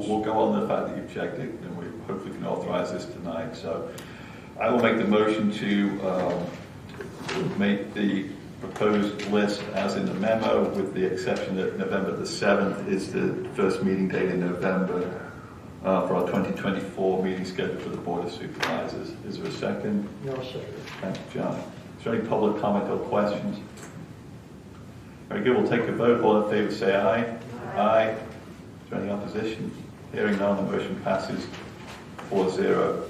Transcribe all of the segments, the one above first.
we'll go on the fact that you've checked it, and we hopefully can authorize this tonight. So I will make the motion to um, make the proposed list as in the memo, with the exception that November the 7th is the first meeting date in November uh, for our 2024 meeting scheduled for the Board of Supervisors. Is there a second? No, second. Thank you, John. Is there any public comment or questions? Very good, we'll take a vote. All in favor, say aye. Aye. Is there any opposition? Hearing none, the motion passes 4-0.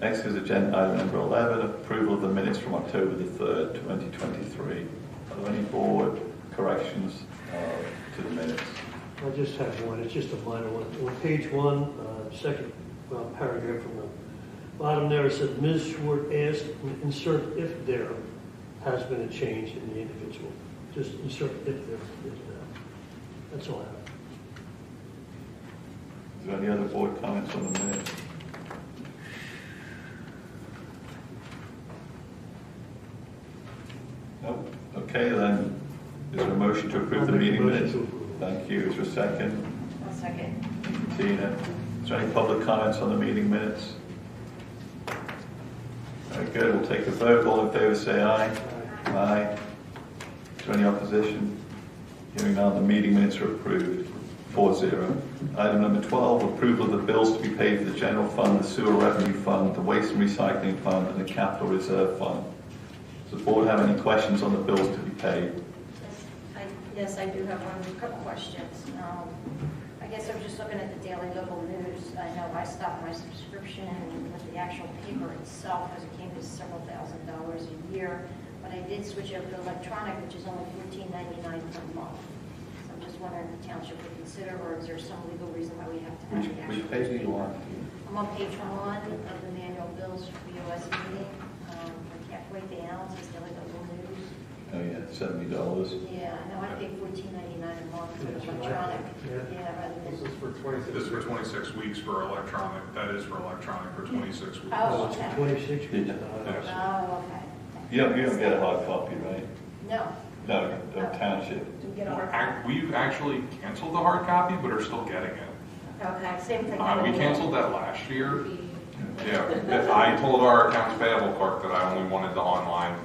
Next is agenda item number 11, approval of the minutes from October the 3rd, 2023. Are there any board corrections uh, to the minutes? I just have one, it's just a minor one. On page one, uh, second uh, paragraph from the bottom there, it said, Ms. Schwartz asked, insert if there has been a change in the individual. Just insert if there is now. That's all I have. Is there any other board comments on the minutes? No? Okay, then, is there a motion to approve the I'll make a meeting motion minutes? to approve. Thank you, is there a second? I'll second. Thank you, Tina. Is there any public comments on the meeting minutes? Very good, we'll take a vote, all in favor say aye. Aye. Is there any opposition? Hearing none, the meeting minutes are approved, 4-0. Item number 12, approval of the bills to be paid for the general fund, the sewer revenue fund, the waste and recycling fund, and the capital reserve fund. Does the board have any questions on the bills to be paid? I- Yes, I do have one, a couple questions. Um, I guess I was just looking at the daily local news. I know I stopped my subscription with the actual paper itself because it came to several thousand dollars a year, but I did switch over to electronic, which is only $14.99 per month. So I'm just wondering if the township would consider, or is there some legal reason why we have to have Which, the actual? which page do you want? I'm on page one of the manual bills for the US meeting. Um, I can't wait to analyze daily local news. Oh, yeah, $70. Yeah, no, I pay fourteen ninety-nine a month for Yeah, it's electronic, electronic, yeah, rather This than, is for 26. This is for 26 weeks for electronic, that is for electronic for 26 weeks. Oh. Uh, it's Twenty-six. Yeah. Uh, oh, okay. You don't, you don't get a hard copy, right? No, No, the township. do we get a hard copy? Ac- We've actually canceled the hard copy, but are still getting it. Okay, same thing. Uh, We canceled that last year. Yeah, that- I told our accounts payable clerk that I only wanted the online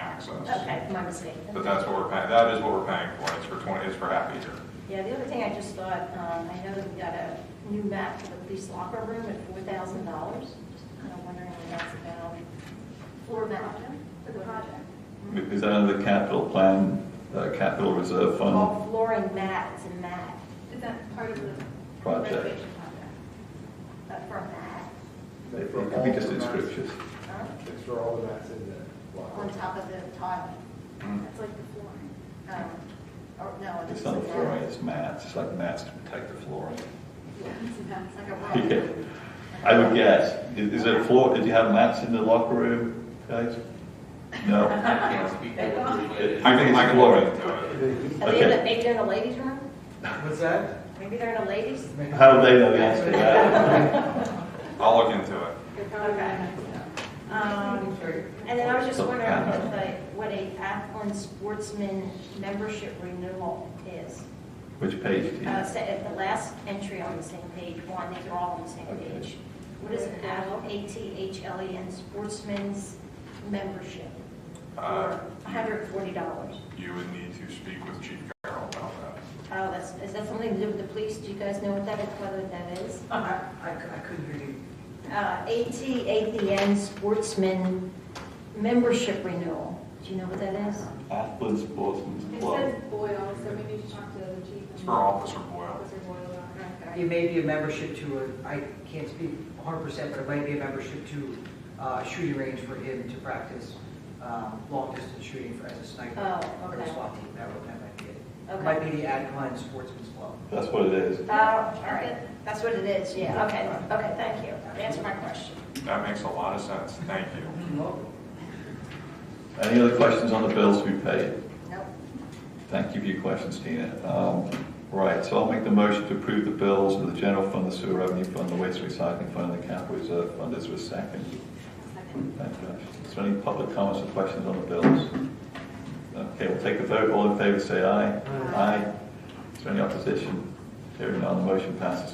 access. Okay, my mistake. But that's what we're paying, that is what we're paying for, it's for 20, it's for half a year. Yeah, the other thing I just thought, um, I know that we got a new map for the police locker room at four thousand dollars. Just kind of wondering what that's about. Floor map, the project. Is that under the capital plan, uh, capital reserve fund Called flooring mat, it's a mat, Is that part of the project? renovation project? but for a mat, It could be just inscriptions. huh? It's for all of that's in there. on top of the tile. Mm. That's like the flooring. Um, Or, no, Hmm. It's it's not like the flooring, that. it's mats, it's like mats to protect the flooring. It's like a Yeah. rock. I would guess, is is there a floor, did you have mats in the locker room, guys? No? I I think I can look into it. Are they in Okay. the, maybe they're in the ladies' room? What's that? Maybe they're in the ladies? How would they know the answer to that? I'll look into it. Okay. Um, And then I was just wondering what the- what a Athlon Sportsman membership renewal is. Which page do you? Uh, so At the last entry on the same page, one, these are all on the same Okay. page. What is an Athlon, A-T-H-L-E-N E Sportsman's membership? Uh, For $140. You would need to speak with Chief Carroll about that. Oh, that's, is that something to do with the police? Do you guys know what that is, whether that is? Oh, I, I- I couldn't hear you. Uh, ATAPN Sportsman Membership Renewal. Do you know what that is? Athlon Sportsman's It Club. says Boyle, so we need to talk to the chief. and- It's for Officer Boyle. Officer Boyle. about it. It may be a membership to a, I can't speak 100%, but it might be a membership to uh, a shooting range for him to practice um, long-distance shooting for, as a sniper. Oh, Or okay. a SWAT team, that would, that might be Okay. it. Might be the Adcon Sportsman's Club. That's what it is. Oh, all right. That's what it is, yeah. Okay, okay, thank you. Answer my question. That makes a lot of sense, thank you. Any other questions on the bills to be paid? Nope. Thank you for your questions, Tina. Um, Right, so I'll make the motion to approve the bills for the general fund, the sewer revenue fund, the waste recycling fund, and the capital reserve fund. Is there a second? Second. Thank you. Ash. Is there any public comments or questions on the bills? Okay, we'll take a vote. All in favor, say aye. Aye. Is there any opposition? Hearing none, the motion passes